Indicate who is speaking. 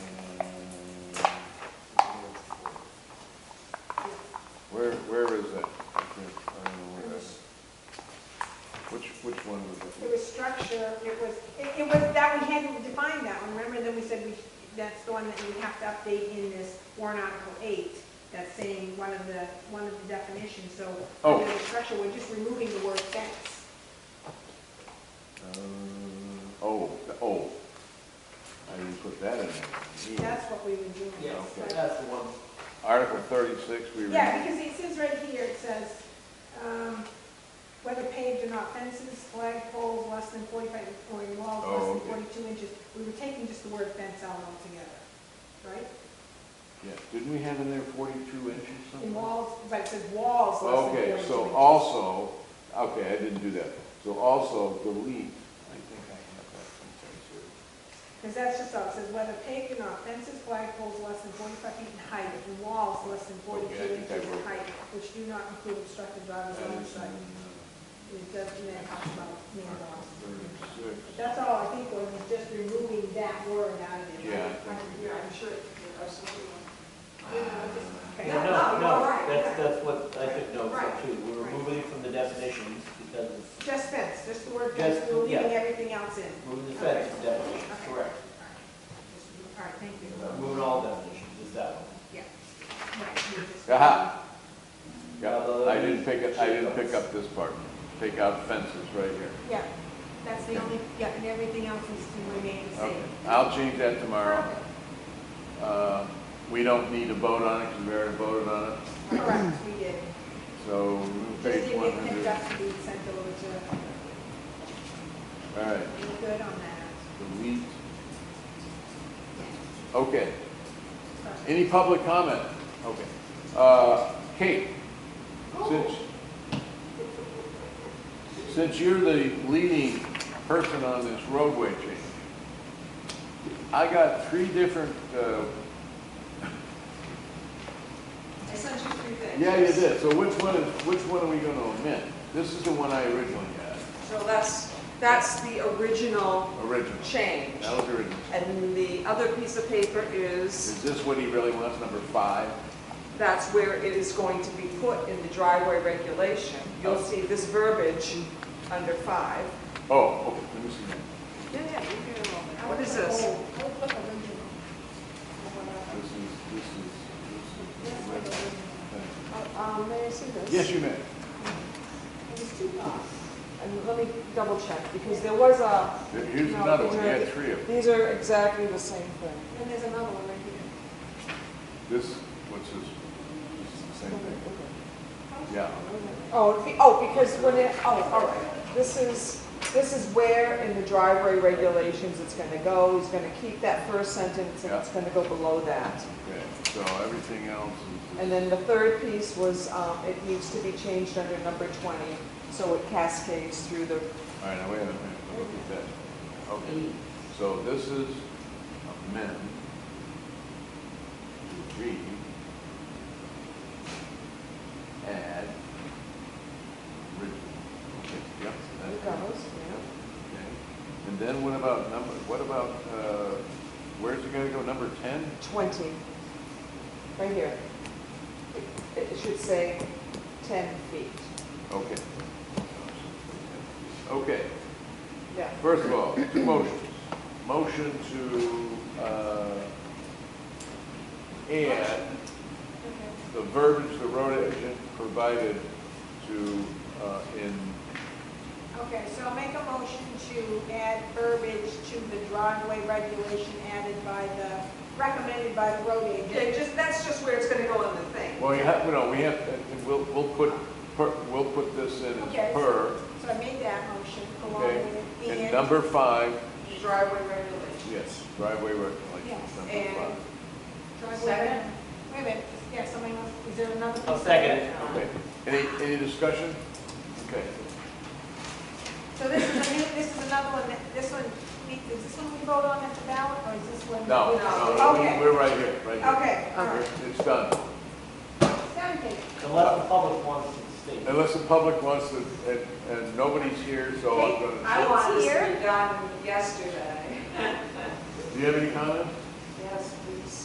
Speaker 1: that's the one that you have to update in this warrant article eight, that's saying one of the, one of the definitions, so
Speaker 2: Oh.
Speaker 1: under the structure, we're just removing the word fence.
Speaker 2: Uh, Oh, oh. I didn't put that in there. Yeah.
Speaker 1: That's what we were doing.
Speaker 3: Yes,
Speaker 1: Like-
Speaker 3: that's the one.
Speaker 2: Article thirty-six, we read.
Speaker 1: Yeah, because it says right here, it says, um, whether paved or not, fences, flag poles, less than forty-five, or in walls
Speaker 2: Oh,
Speaker 1: less than
Speaker 2: okay.
Speaker 1: forty-two inches. We were taking just the word fence out altogether, right?
Speaker 2: Yeah, didn't we have in there forty-two inches something?
Speaker 1: In walls, but it says walls less than forty-two
Speaker 2: Okay,
Speaker 1: inches.
Speaker 2: so also, okay, I didn't do that. So also delete, I think I have that someplace here.
Speaker 1: Because that's just all, it says whether paved or not, fences, flag poles less than forty-five feet in height, and walls less than
Speaker 2: Okay, I
Speaker 1: forty-two
Speaker 2: think I
Speaker 1: inches in
Speaker 2: wrote
Speaker 1: height, which do not include obstructed drivers
Speaker 2: That
Speaker 1: on
Speaker 2: is in,
Speaker 1: site.
Speaker 2: uh,
Speaker 1: It doesn't, it talks about man walls.
Speaker 2: thirty-six.
Speaker 1: That's all I think was, was just removing that word out of there.
Speaker 2: Yeah, I think we
Speaker 4: Yeah, I'm sure there are some people.
Speaker 1: Okay.
Speaker 3: No,
Speaker 1: Oh,
Speaker 3: no,
Speaker 1: all
Speaker 3: no,
Speaker 1: right,
Speaker 3: that's,
Speaker 1: yeah.
Speaker 3: that's what I took notes
Speaker 1: Right,
Speaker 3: of too. We're
Speaker 1: right.
Speaker 3: removing it from the definitions because it's
Speaker 1: Just fence, just the word fence,
Speaker 3: Just-
Speaker 1: we're
Speaker 3: yeah.
Speaker 1: leaving everything else in.
Speaker 3: moving the feds from definitions,
Speaker 1: Okay.
Speaker 3: correct.
Speaker 1: All right, thank you.
Speaker 3: Moving all definitions, is that one.
Speaker 1: Yeah. Right, you just-
Speaker 2: Aha. Yeah, I didn't pick it, I didn't pick up this part. Take out fences right here.
Speaker 1: Yeah, that's the only, yeah, and everything else is to remain the
Speaker 2: Okay,
Speaker 1: same.
Speaker 2: I'll change that tomorrow.
Speaker 1: Perfect.
Speaker 2: Uh, We don't need to vote on it, because we already voted on it,
Speaker 1: Correct, we did.
Speaker 2: so
Speaker 1: Just
Speaker 2: page
Speaker 1: didn't
Speaker 2: one
Speaker 1: get picked
Speaker 2: hundred.
Speaker 1: up to be sent over to,
Speaker 2: All right,
Speaker 1: we're good on that.
Speaker 2: delete. Okay, any public comment? Okay. Uh, Kate, since, since you're the leading person on this roadway change, I got three different, uh,
Speaker 4: I sent you three things.
Speaker 2: yeah, you did, so which one is, which one are we gonna omit? This is the one I originally had,
Speaker 4: So that's, that's the original
Speaker 2: original.
Speaker 4: change.
Speaker 2: That was original.
Speaker 4: And the other piece of paper is,
Speaker 2: Is this what he really wants, number five?
Speaker 4: that's where it is going to be put in the driveway regulation. You'll see this verbiage under five.
Speaker 2: Oh, okay, let me see that.
Speaker 4: Yeah, yeah, you can enroll it.
Speaker 1: I
Speaker 4: What
Speaker 1: would
Speaker 4: is
Speaker 1: put
Speaker 4: this?
Speaker 1: old. I would put original. Or whatever.
Speaker 2: This is, this is, this
Speaker 1: That's
Speaker 2: is.
Speaker 1: what
Speaker 2: original.
Speaker 1: original.
Speaker 2: Thank
Speaker 4: Um, may I see this?
Speaker 2: you. Yes, you may.
Speaker 1: There's two costs.
Speaker 4: And let me double check, because there was a,
Speaker 2: Here- Here's
Speaker 4: No,
Speaker 2: another
Speaker 4: these
Speaker 2: one, you
Speaker 4: are
Speaker 2: had
Speaker 4: the-
Speaker 2: three of them.
Speaker 4: these are exactly the same thing.
Speaker 1: And there's another one right here.
Speaker 2: This, what's this? This is the same thing. Yeah,
Speaker 4: Oh, it'd be- oh, because when it, oh, all right, this is, this is where in the driveway regulations it's gonna go, he's gonna keep that first sentence, and it's gonna go below that.
Speaker 2: okay, so everything else is.
Speaker 4: And then the third piece was, um, it needs to be changed under number twenty, so it cascades through the,
Speaker 2: All right, now wait a minute, look at that. Okay, so this is amend, read, add, original. Okay, yep.
Speaker 4: it
Speaker 2: that-
Speaker 4: goes,
Speaker 2: Okay. And then what about number, what about, uh, where's it gonna go, number ten?
Speaker 4: yeah, twenty, right here. It- It should say ten feet,
Speaker 2: Okay. Okay,
Speaker 4: yeah.
Speaker 2: first of all, two motions. Motion to, uh, add the verbiage the road agent provided to, uh, in,
Speaker 1: Okay, so I'll make a motion to add verbiage to the driveway regulation added by the, recommended by the road
Speaker 4: Yeah,
Speaker 1: agent.
Speaker 4: just, that's just where it's gonna go in the thing.
Speaker 2: well, you have, no, we have, we'll, we'll put, per- we'll put this in
Speaker 1: Okay.
Speaker 2: as per.
Speaker 1: So I made that motion along
Speaker 2: Okay.
Speaker 1: with it.
Speaker 2: And number five,
Speaker 4: driveway regulation.
Speaker 2: Yes, driveway regulations,
Speaker 1: Yes,
Speaker 2: number
Speaker 4: and-
Speaker 2: five.
Speaker 1: Driveway-
Speaker 4: Second.
Speaker 1: Wait a minute, yeah, somebody else, is there another?
Speaker 3: I'll second it.
Speaker 2: Okay, any, any discussion? Okay,
Speaker 1: So this is a new, this is another one, that- this one, we- is this one we vote on at the ballot, or is this one?
Speaker 2: no, no, no, we-
Speaker 1: Okay.
Speaker 2: we're right here, right here.
Speaker 1: Okay, all right.
Speaker 2: We're- It's done,
Speaker 1: Sound good.
Speaker 3: Unless the public wants to state.
Speaker 2: unless the public wants to, and, and nobody's here, so I'm gonna,
Speaker 1: I want this to be
Speaker 4: done yesterday.
Speaker 2: do you have any comments?